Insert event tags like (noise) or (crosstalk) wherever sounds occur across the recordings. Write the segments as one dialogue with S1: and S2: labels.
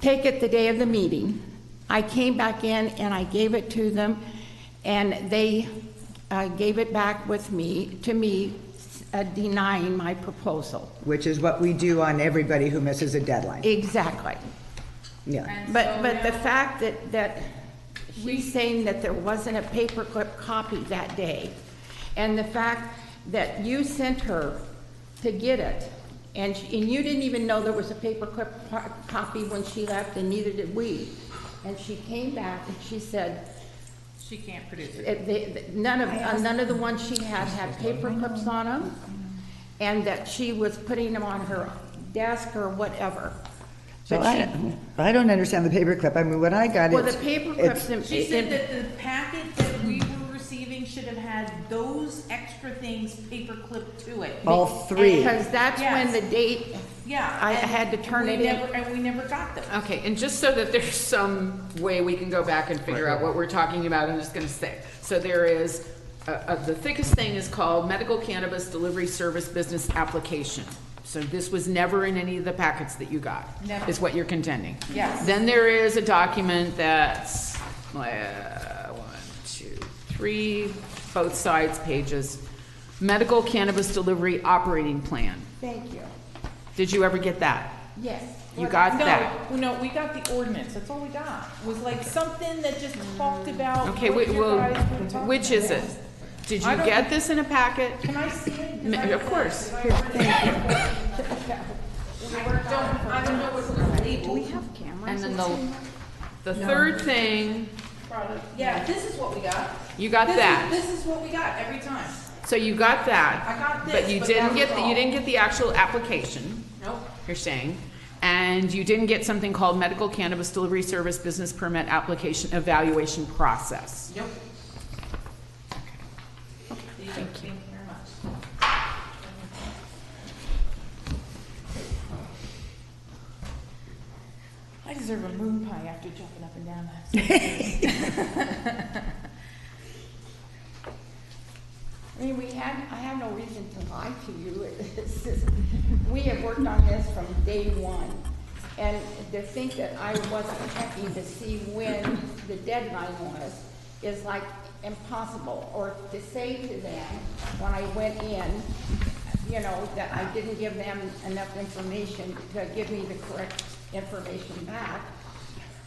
S1: take it the day of the meeting. I came back in and I gave it to them, and they uh, gave it back with me, to me, uh, denying my proposal.
S2: which is what we do on everybody who misses a deadline.
S1: Exactly.
S2: Yeah.
S1: But, but the fact that, that she's saying that there wasn't a paperclip copy that day, and the fact that you sent her to get it, and, she- and you didn't even know there was a paperclip par- copy when she left, and neither did we. And she came back and she said,
S3: She can't produce it.
S1: it- they- th- none of, uh, none of the ones she had had paperclips on them, and that she was putting them on her desk or whatever.
S2: So
S1: But she-
S2: I, I don't understand the paperclip. I mean, when I got it.
S1: Well, the paperclips. and-
S3: She
S1: and-
S3: said that the packet that we were receiving should have had those extra things paperclipped to it.
S4: Oh.
S2: All three.
S1: Because that's when the
S3: Yes.
S1: date,
S3: Yeah.
S1: I
S3: and
S1: had to turn
S3: we
S1: it in.
S3: never- And we never got them.
S4: Okay, and just so that there's some way we can go back and figure out what we're talking about, I'm just gonna say, so there is, uh, uh, the thickest thing is called medical cannabis delivery service business application. So this was never in any of the packets that you got,
S3: Never.
S4: is what you're contending.
S3: Yes.
S4: Then there is a document that's, uh, one, two, three, both sides pages, medical cannabis delivery operating plan.
S1: thank you,
S4: Did you ever get that?
S1: yes.
S4: You got that?
S3: No, no, we got the ordinance, that's all we got, was like something that just talked about what
S4: Okay,
S3: you
S4: wait, well,
S3: guys were talking
S4: which is it?
S3: about.
S4: Did
S3: I
S4: you
S3: don't-
S4: get this in a packet?
S3: Can I see it?
S4: Ma- Of course.
S3: I don't know what's legal.
S4: And then the, the third thing,
S3: Yeah, this is what we got.
S4: you got
S3: This is-
S4: that.
S3: This is what we got every time.
S4: So you got that.
S3: I got
S4: But
S3: this,
S4: you
S3: but
S4: didn't
S3: that
S4: get,
S3: was
S4: the-
S3: all.
S4: you didn't get the actual application,
S3: Nope.
S4: you're saying. And you didn't get something called medical cannabis delivery service business permit application evaluation process.
S3: Yep. Thank you very much. I deserve a moon pie after jumping up and down that.
S1: I mean, we had, I have no reason to lie to you. (laughs) It's just, we have worked on this from day one. And to think that I wasn't checking to see when the deadline was is like impossible. Or to say to them, when I went in, you know, that I didn't give them enough information to give me the correct information back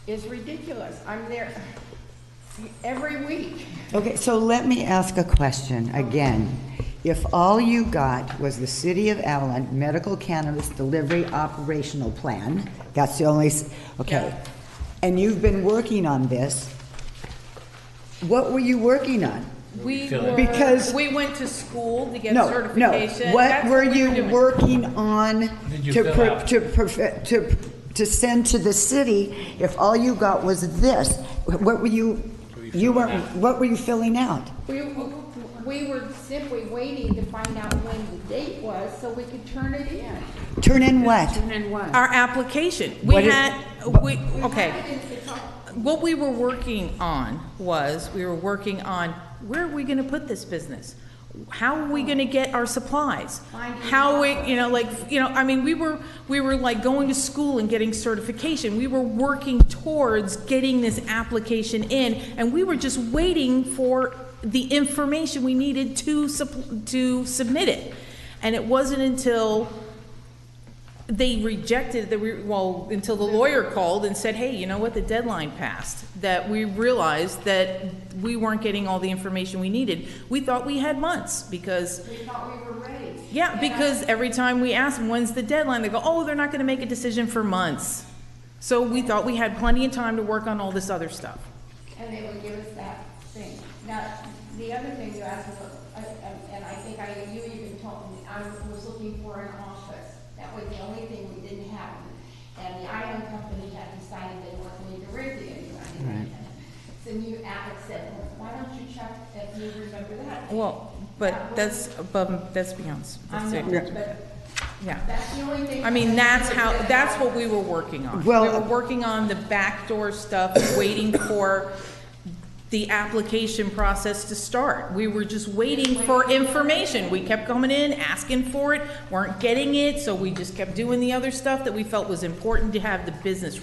S1: is ridiculous. I'm there every week.
S2: Okay, so let me ask a question again. If all you got was the City of Avalon Medical Cannabis Delivery Operational Plan, that's the only, s- okay. And you've been working on this, what were you working on?
S3: We
S2: it. Because-
S3: were, we went to school to get
S2: No, no.
S3: certification.
S2: What
S3: That's
S2: were
S3: we
S2: you
S3: doing.
S2: working on
S5: Did you
S2: to,
S5: fill
S2: per-
S5: out?
S2: to, perfe- to, to send to the city if all you got was this? What were you, you weren't, what were you filling out?
S1: We, we were simply waiting to find out when the date was so we could turn it in.
S2: Turn in what?
S4: And then what?
S3: Our application, we
S2: What is-
S3: had, we, okay. What we were working on was, we were working on, where are we gonna put this business? How are we gonna get our supplies? How we, you know, like, you know, I mean, we were, we were like going to school and getting certification. We were working towards getting this application in, and we were just waiting for the information we needed to sup- to submit it. And it wasn't until they rejected the, re- well, until the lawyer called and said, hey, you know what, the deadline passed, that we realized that we weren't getting all the information we needed. We thought we had months, because. We thought we were ready. Yeah, because every time we asked them, when's the deadline, they go, oh, they're not gonna make a decision for months. So we thought we had plenty of time to work on all this other stuff.
S1: And they would give us that thing. Now, the other thing you asked was, uh, um, and I think I, you even told me, I was looking for an office. That was the only thing we didn't have. And the iron company had decided they weren't going to rent it anybody. So you, Alex said, well, why don't you check if you remember that?
S3: Well, but that's above, that's beyond,
S1: I'm
S3: that's it.
S1: not, but
S3: yeah.
S1: that's the only thing.
S3: I mean, that's how, that's what we were working on. We
S2: Well-
S3: were working on the backdoor stuff, waiting for the application process to start. We were just waiting for information. We kept coming in, asking for it, weren't getting it, so we just kept doing the other stuff that we felt was important to have the business